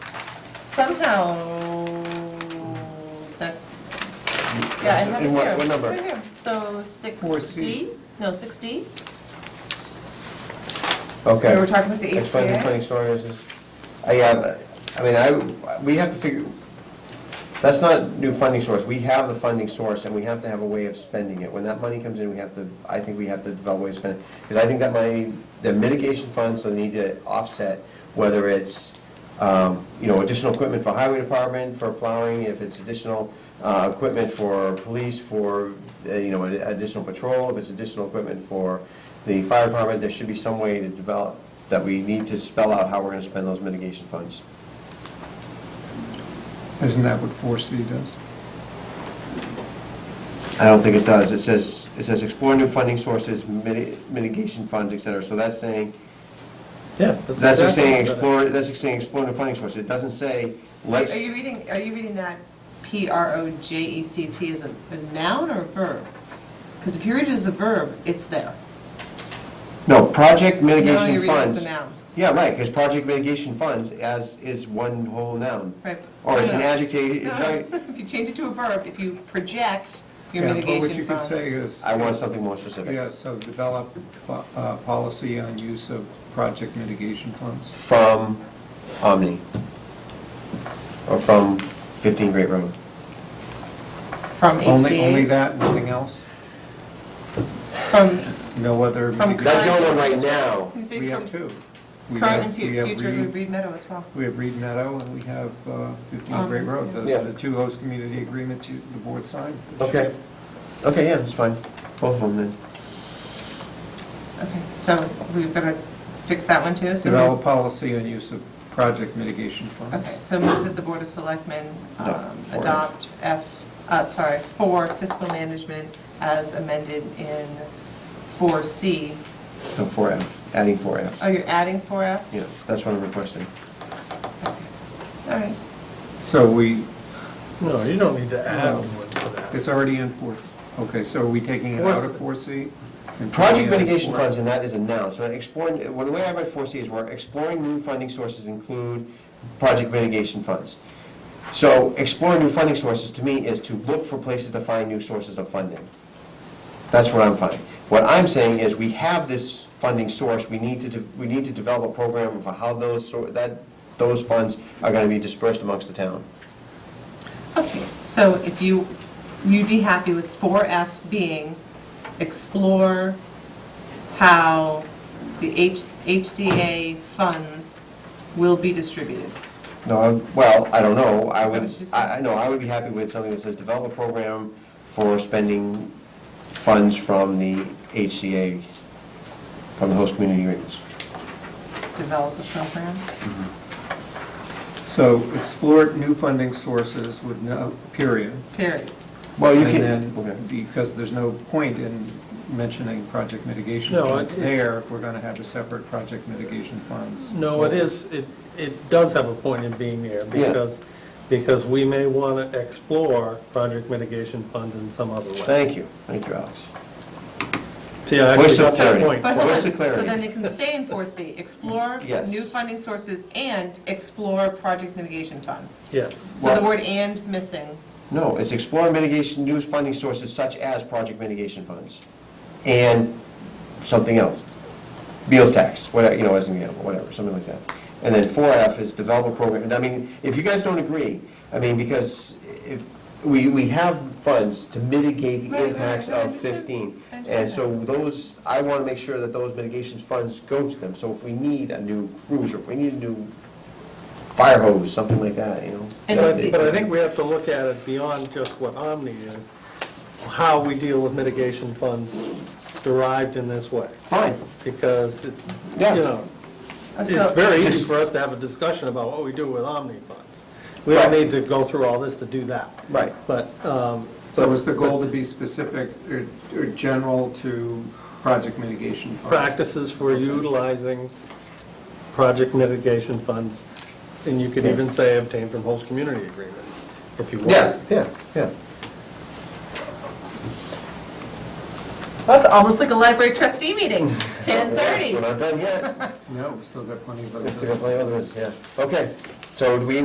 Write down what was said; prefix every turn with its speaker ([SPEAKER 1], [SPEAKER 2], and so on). [SPEAKER 1] somehow, that, yeah, I have it
[SPEAKER 2] In what-
[SPEAKER 1] here.
[SPEAKER 2] what number?
[SPEAKER 1] Right here. So sixty, no, sixty?
[SPEAKER 2] Okay.
[SPEAKER 3] We were talking about the
[SPEAKER 2] Explain
[SPEAKER 1] E
[SPEAKER 2] the
[SPEAKER 3] HCA.
[SPEAKER 2] funny stories. is- I, uh, I mean, I, we have to figure, that's not new funding source. We have the funding source and we have to have a way of spending it. When that money comes in, we have to, I think we have to develop ways to spend it. Because I think that money, the mitigation funds, so they need to offset, whether it's, um, you know, additional equipment for highway department, for plowing, if it's additional uh, equipment for police, for, uh, you know, additional patrol, if it's additional equipment for the fire department, there should be some way to develop, that we need to spell out how we're gonna spend those mitigation funds.
[SPEAKER 4] Isn't that what 4C does?
[SPEAKER 2] I don't think it does. It says, it says explore new funding sources, miti- mitigation funds, et cetera. So that's saying,
[SPEAKER 5] Yeah.
[SPEAKER 2] that's like saying
[SPEAKER 5] exactly what I'm gonna-
[SPEAKER 2] explore, that's like saying explore new funding sources. It doesn't say,
[SPEAKER 3] Are
[SPEAKER 2] let's,
[SPEAKER 3] you reading, are you reading that?
[SPEAKER 1] P R O J E C T is a a noun or a verb? Because if you read it as a verb, it's there.
[SPEAKER 2] no, project
[SPEAKER 1] No, you
[SPEAKER 2] mitigation
[SPEAKER 1] read it as
[SPEAKER 2] funds.
[SPEAKER 1] a noun.
[SPEAKER 2] Yeah, right, because project mitigation funds as, is one whole noun.
[SPEAKER 1] Right.
[SPEAKER 4] Oh,
[SPEAKER 2] Or it's an
[SPEAKER 1] No, no.
[SPEAKER 2] adjective, it's
[SPEAKER 1] No,
[SPEAKER 2] like-
[SPEAKER 1] If you change it to a verb, if you project your
[SPEAKER 4] Yeah,
[SPEAKER 1] mitigation
[SPEAKER 4] But what you could
[SPEAKER 1] funds.
[SPEAKER 4] say is,
[SPEAKER 2] I want something more specific.
[SPEAKER 4] yeah, so develop po- uh, policy on use of project mitigation funds.
[SPEAKER 2] From Omni. Or from 15 Great Road.
[SPEAKER 1] From
[SPEAKER 4] Only, only
[SPEAKER 1] HCA's?
[SPEAKER 4] that, nothing else?
[SPEAKER 1] From,
[SPEAKER 4] No other?
[SPEAKER 1] From
[SPEAKER 4] mitigation-
[SPEAKER 2] That's the only one right now.
[SPEAKER 1] you say
[SPEAKER 4] We
[SPEAKER 1] from
[SPEAKER 4] have two. We
[SPEAKER 1] current
[SPEAKER 4] have-
[SPEAKER 1] and
[SPEAKER 4] we
[SPEAKER 1] fu-
[SPEAKER 4] have
[SPEAKER 1] future
[SPEAKER 4] Reed-
[SPEAKER 1] would read Meadow as well.
[SPEAKER 4] We have Reed Meadow and we have uh, 15
[SPEAKER 1] Um,
[SPEAKER 4] Great Road. Those
[SPEAKER 2] yeah.
[SPEAKER 4] are the two host community agreements you, the board signed. this year.
[SPEAKER 2] Okay. Okay, yeah, that's fine. Both of them then.
[SPEAKER 1] Okay, so we've got to fix that one too? So we-
[SPEAKER 4] Develop policy on use of project mitigation funds.
[SPEAKER 1] Okay, so move that the Board of Selectmen
[SPEAKER 2] No,
[SPEAKER 1] um,
[SPEAKER 2] four F.
[SPEAKER 1] adopt F, uh, sorry, for fiscal management as amended in 4C.
[SPEAKER 2] No, 4F, adding 4F.
[SPEAKER 1] Oh, you're adding 4F?
[SPEAKER 2] Yeah, that's what I'm requesting.
[SPEAKER 1] Okay. All right.
[SPEAKER 4] So we,
[SPEAKER 5] No, you don't need to add
[SPEAKER 4] No.
[SPEAKER 5] one to that.
[SPEAKER 4] it's already in four, okay, so are we taking it out of 4C? and putting
[SPEAKER 2] Project
[SPEAKER 4] it in
[SPEAKER 2] mitigation
[SPEAKER 4] 4?
[SPEAKER 2] funds, and that is a noun, so exploring, well, the way I read 4C is we're exploring new funding sources include project mitigation funds. So exploring new funding sources to me is to look for places to find new sources of funding. That's what I'm finding. What I'm saying is, we have this funding source, we need to, de- we need to develop a program for how those, sor- that, those funds are gonna be dispersed amongst the town.
[SPEAKER 1] Okay, so if you, you'd be happy with 4F being explore how the H HCA funds will be distributed.
[SPEAKER 2] No, I'm- well, I don't know, I
[SPEAKER 1] Is that
[SPEAKER 2] would,
[SPEAKER 1] what you said?
[SPEAKER 2] I, I know, I would be happy with something that says develop a program for spending funds from the HCA, from the host community agreements.
[SPEAKER 1] Develop a program.
[SPEAKER 4] So explore new funding sources with no, period.
[SPEAKER 1] Period.
[SPEAKER 2] Well, you
[SPEAKER 4] And
[SPEAKER 2] can, okay.
[SPEAKER 4] then, because there's no point in mentioning project mitigation
[SPEAKER 5] No,
[SPEAKER 4] funds
[SPEAKER 5] it's-
[SPEAKER 4] there if we're going to have a separate project mitigation funds.
[SPEAKER 5] No, it is, it, it does have a point in being there,
[SPEAKER 2] Yeah.
[SPEAKER 5] because, because we may want to explore project mitigation funds in some other way.
[SPEAKER 2] thank you, thank you, Alex.
[SPEAKER 5] See, I
[SPEAKER 2] Voice of
[SPEAKER 5] actually got that
[SPEAKER 2] clarity.
[SPEAKER 5] point.
[SPEAKER 1] But hold
[SPEAKER 2] What's
[SPEAKER 1] on,
[SPEAKER 2] the clarity?
[SPEAKER 1] so then it can stay in 4C, explore
[SPEAKER 2] Yes.
[SPEAKER 1] new funding sources and explore project mitigation funds.
[SPEAKER 5] Yes,
[SPEAKER 1] So the
[SPEAKER 2] Well-
[SPEAKER 1] word "and" missing,
[SPEAKER 2] No, it's explore mitigation, new funding sources such as project mitigation funds, and something else. Meals tax, whatever, you know, as an example, whatever, something like that. And then four F is develop a program, and I mean, if you guys don't agree, I mean, because if, we, we have funds to mitigate
[SPEAKER 1] Right,
[SPEAKER 2] the
[SPEAKER 1] right,
[SPEAKER 2] impacts
[SPEAKER 1] right, I
[SPEAKER 2] of
[SPEAKER 1] understand.
[SPEAKER 2] fifteen.
[SPEAKER 1] I understand
[SPEAKER 2] And so those, I wanna make sure that those mitigation funds go to them, so if we need a new cruiser, if we need a new fire hose, something like that, you know?
[SPEAKER 1] And
[SPEAKER 5] But I
[SPEAKER 1] the-
[SPEAKER 5] think- but I think we have to look at it beyond just what Omni is, how we deal with mitigation funds derived in this way,
[SPEAKER 2] Fine,
[SPEAKER 5] because, it- you
[SPEAKER 2] Yeah.
[SPEAKER 5] know,
[SPEAKER 1] Oh,
[SPEAKER 5] it's
[SPEAKER 1] so,
[SPEAKER 5] very easy
[SPEAKER 2] Just-
[SPEAKER 5] for us to have a discussion about what we do with Omni funds. We don't
[SPEAKER 2] Right.
[SPEAKER 5] need to go through all this to do that.
[SPEAKER 2] Right.
[SPEAKER 5] But, um,
[SPEAKER 4] So is the goal to be specific or, or general to project mitigation funds?
[SPEAKER 5] practices for utilizing project mitigation funds, and you could
[SPEAKER 2] Yeah.
[SPEAKER 5] even say obtained from host community agreements, if you want.
[SPEAKER 2] yeah, yeah, yeah.
[SPEAKER 1] that's almost like a library trustee meeting, 10:30.
[SPEAKER 2] We're not done yet.
[SPEAKER 4] No, we still got plenty of other.
[SPEAKER 2] Still got plenty of others, yeah. Okay, so do we